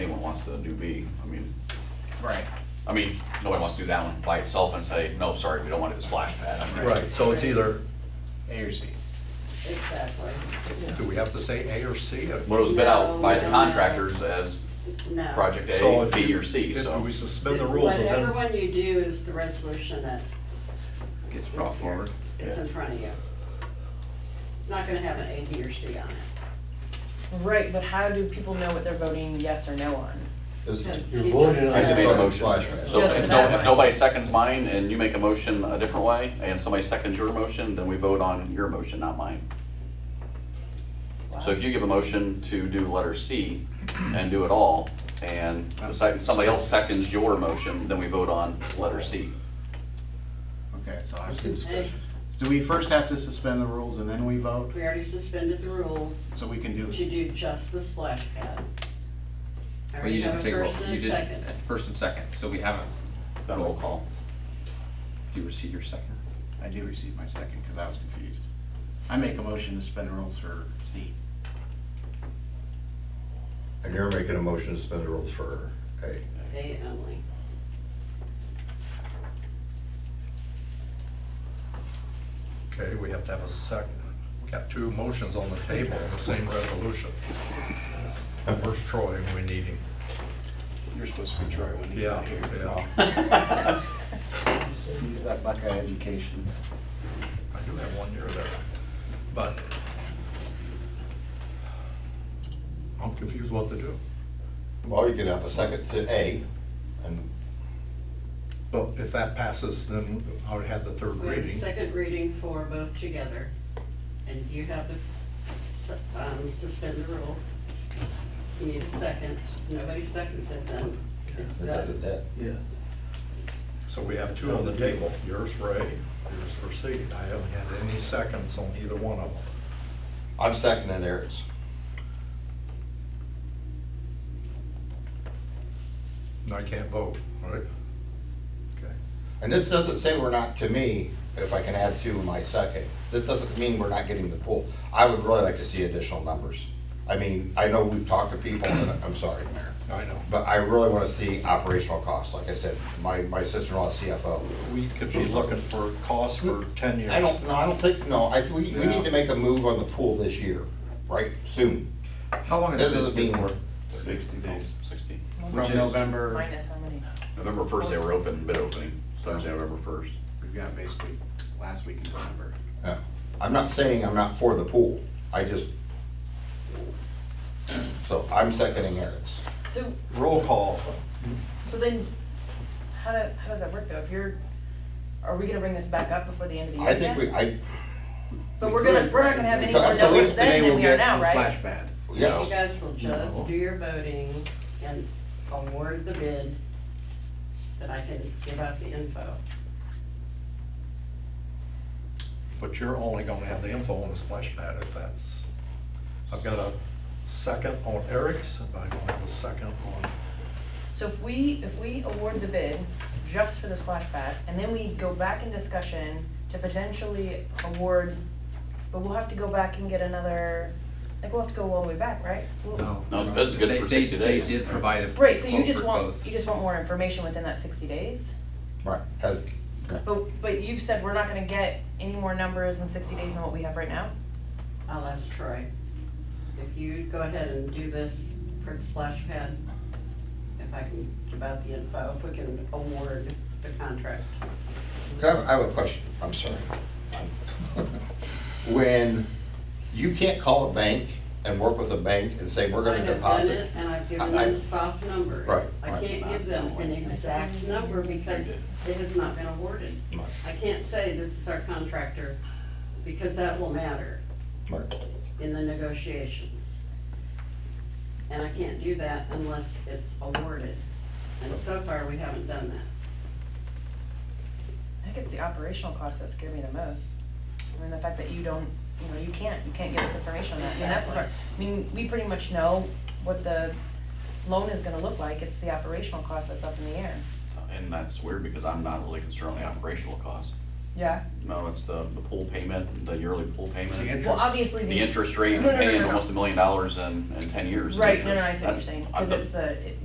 anyone wants to do B. I mean, Right. I mean, nobody wants to do that one by itself and say, no, sorry, we don't want to do the splash pad. I mean, Right, so it's either, A or C. Exactly. do we have to say A or C? But it was bid out by the No, no, no. contractors as No. project So A, if B, you- or C, If so. we suspend the rules, and Whatever then one you do is the resolution that gets is brought here. forward. It's in front of you. It's not gonna have an A, B, or C on it. Right, but how do people know what they're voting yes or no on? Is- Yes. You're voting on I just made a fucking motion. flash drive. So Just if that no- if way. nobody seconds mine and you make a motion a different way, and somebody seconds your motion, then we vote on your motion, not mine. So if you give a motion to do letter C and do it all, and the second, somebody else seconds your motion, then we vote on letter C. Okay, so I have That's to, good discussion. do we first have to suspend the rules and then we vote? We already suspended the rules So we can to do, do just the splash pad. I Well, you already have didn't a take roll, first you and a did, second. first and second, so we haven't, Then roll call. do you receive your second? I do receive my second because I was confused. I make a motion to suspend the rules for C. And you're making a motion to suspend the rules for A. A only. Okay, we have to have a second. We got two motions on the table, the same resolution. Where's Troy when we need him? You're supposed to be Troy when he's not here. Yeah. Use that Buckeye education. I do have one year there, but I'm confused what to do. Well, you could have a second to A, and But if that passes, then I would have the third We have a reading. second reading for both together, and you have the, su- um, suspend the rules. You need a second, nobody seconds it then. It's it does done. it dead. So we have two on the table, yours for A, yours for C. I haven't had any seconds on either one of them. I'm seconding Eric's. And I can't vote, right? Okay. And this doesn't say we're not, to me, if I can add to my second, this doesn't mean we're not getting the pool. I would really like to see additional numbers. I mean, I know we've talked to people, and I'm sorry, Mayor, I know. but I really want to see operational costs. Like I said, my, my sister-in-law is CFO. We could be looking for costs for 10 years. I don't, no, I don't think, no, I, we, we Yeah. need to make a move on the pool this year, right, soon. How long This has is this being been work. for? Sixty days. Sixty. Which From is- November, Minus how many? November first, they were open, bid opening, Thursday, November first. we've got basically last week in November. Yeah. I'm not saying I'm not for the pool, I just, so I'm seconding Eric's. So, Roll call. so then, how do, how does that work though? If you're, are we gonna bring this back up before the end of the year I think we, again? I, But we we're gonna, could, we're not right. gonna have any At more numbers least today then than we'll we get are now, The right? Splash pad. You yeah, guys will just do your voting and award the bid, then I can give out the info. But you're only gonna have the info on the splash pad if that's, I've got a second on Eric's, and I don't have a second on, So if we, if we award the bid just for the splash pad, and then we go back in discussion to potentially award, but we'll have to go back and get another, like, we'll have to go all the way back, right? We'll- No, it's- it's good They- for they- 60 days. They did provide a Right, so you quote just for want, both. you just want more information within that sixty days? right, has, But, but you've said we're not gonna get any more numbers in sixty days than what we have right now? I'll ask Troy. If you go ahead and do this for the splash pad, if I can give out the info, if we can award the contract. Can I have- I have a question, I'm sorry. When you can't call a bank and work with a bank and say, we're gonna I've done deposit. it, and I've given I- I- them soft numbers. Right, I right. can't give them an exact number because it has not been awarded. Right. I can't say this is our contractor, because that will matter Right. in the negotiations. And I can't do that unless it's awarded, and so far, we haven't done that. I think it's the operational costs that scare me the most. I mean, the fact that you don't, you know, you can't, you can't give us information on that, I mean, that's the part. I mean, we pretty much know what the loan is gonna look like, it's the operational cost that's up in the air. And that's weird because I'm not really concerned on the operational cost. Yeah, No, it's the, the pool payment, the yearly pool The payment. interest- well, obviously The the, interest rate, No, no, no, paying no, no. almost a million dollars in, in ten years. in right, no, no, I interest. see what you're That's- saying, I- because the- it's the,